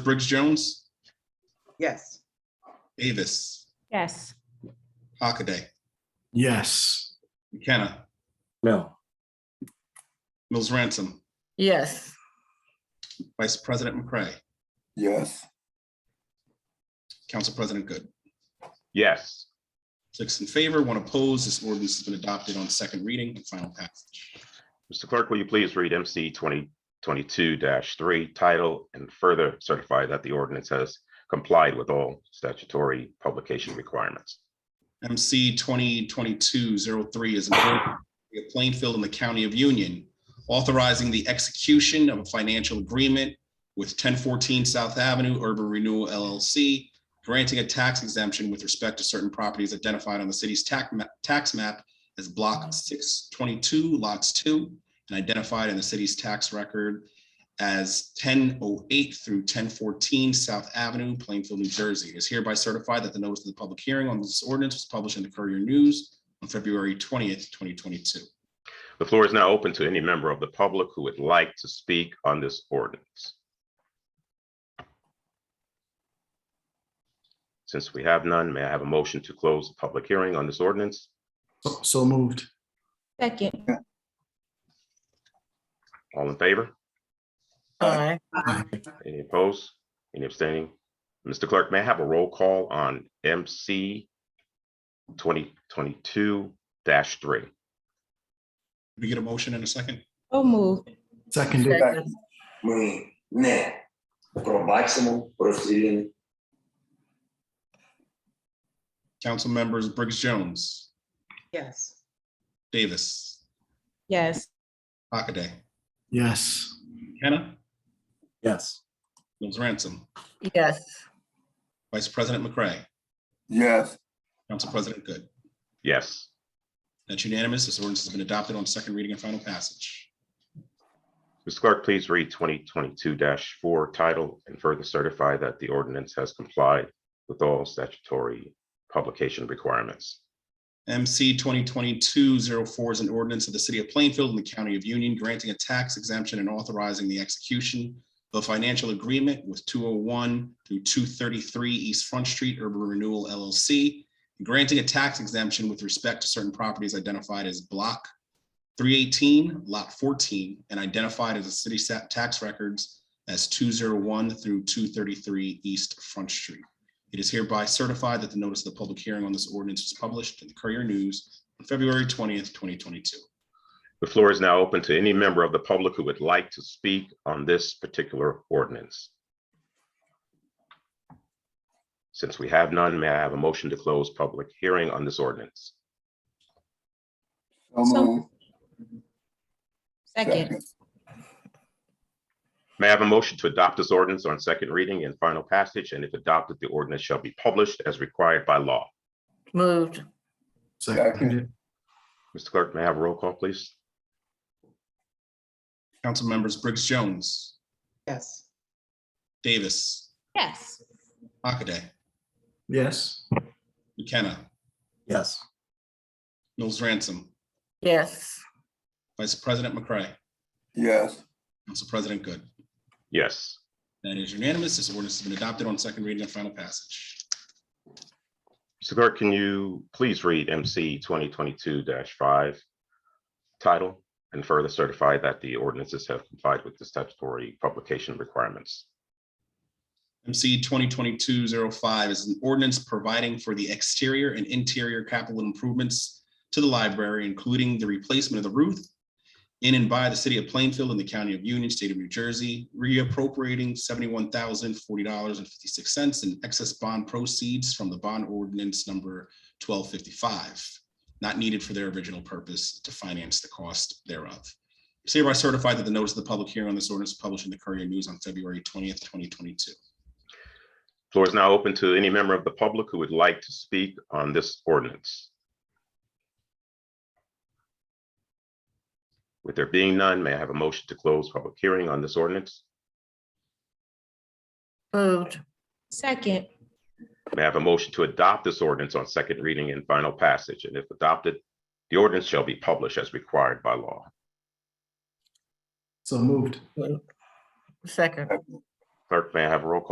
Briggs Jones, Yes. Davis, Yes. Hockaday, Yes. McKenna, No. Mills Ransom, Yes. Vice President McCray, Yes. Council President Good. yes. Six in favor, one opposed. This ordinance has been adopted on second reading and final passage. Mr. Clerk, will you please read MC twenty twenty-two three title and further certify that the ordinance has complied with all statutory publication requirements? MC 2022-03 is an ordinance of the City of Plainfield in the County of Union, authorizing the execution of a financial agreement with 1014 South Avenue Urban Renewal LLC, granting a tax exemption with respect to certain properties identified on the city's tax ma- tax map as Block 622, Lots 2, and identified in the city's tax record as 1008 through 1014 South Avenue, Plainfield, New Jersey. It is hereby certified that the notice of the public hearing on this ordinance was published in the Courier News on February 20th, 2022. The floor is now open to any member of the public who would like to speak on this ordinance. Since we have none, may I have a motion to close the public hearing on this ordinance? So- So moved. Second. All in favor? Aye. Any opposed? Any abstaining? Mr. Clerk, may I have a roll call on MC twenty twenty-two three? We get a motion in a second? So moved. Seconded. Мы не пробачимо просили Council members Briggs Jones, Yes. Davis, Yes. Hockaday, Yes. Hannah, Yes. Mills Ransom, Yes. Vice President McCray, Yes. Council President Good. Yes. That's unanimous. This ordinance has been adopted on second reading and final passage. Mr. Clerk, please read twenty twenty-two four title and further certify that the ordinance has complied with all statutory publication requirements. MC 2022-04 is an ordinance of the City of Plainfield and the County of Union granting a tax exemption and authorizing the execution of a financial agreement with 201 through 233 East Front Street Urban Renewal LLC, granting a tax exemption with respect to certain properties identified as Block 318, Lot 14, and identified as the city sa- tax records as 201 through 233 East Front Street. It is hereby certified that the notice of the public hearing on this ordinance was published in the Courier News on February twentieth, twenty twenty-two. The floor is now open to any member of the public who would like to speak on this particular ordinance. Since we have none, may I have a motion to close public hearing on this ordinance? So moved. Second. May I have a motion to adopt this ordinance on second reading and final passage, and if adopted, the ordinance shall be published as required by law. Moved. Seconded. Mr. Clerk, may I have a roll call, please? Council members Briggs Jones, Yes. Davis, Yes. Hockaday, Yes. McKenna, Yes. Mills Ransom, Yes. Vice President McCray, Yes. Council President Good. Yes. That is unanimous. This ordinance has been adopted on second reading and final passage. Mr. Clerk, can you please read MC twenty twenty-two five title and further certify that the ordinances have complied with the statutory publication requirements? MC 2022-05 is an ordinance providing for the exterior and interior capital improvements to the library, including the replacement of the roof in and by the city of Plainfield and the county of Union, state of New Jersey, reappropriating $71,040.56 in excess bond proceeds from the bond ordinance number 1255, not needed for their original purpose to finance the cost thereof. It's hereby certified that the notice of the public hearing on this ordinance published in the Courier News on February 20th, 2022. Floor is now open to any member of the public who would like to speak on this ordinance. With there being none, may I have a motion to close public hearing on this ordinance? Moved. Second. May I have a motion to adopt this ordinance on second reading and final passage? And if adopted, the ordinance shall be published as required by law. So moved. Second. Clerk, may I have a roll call?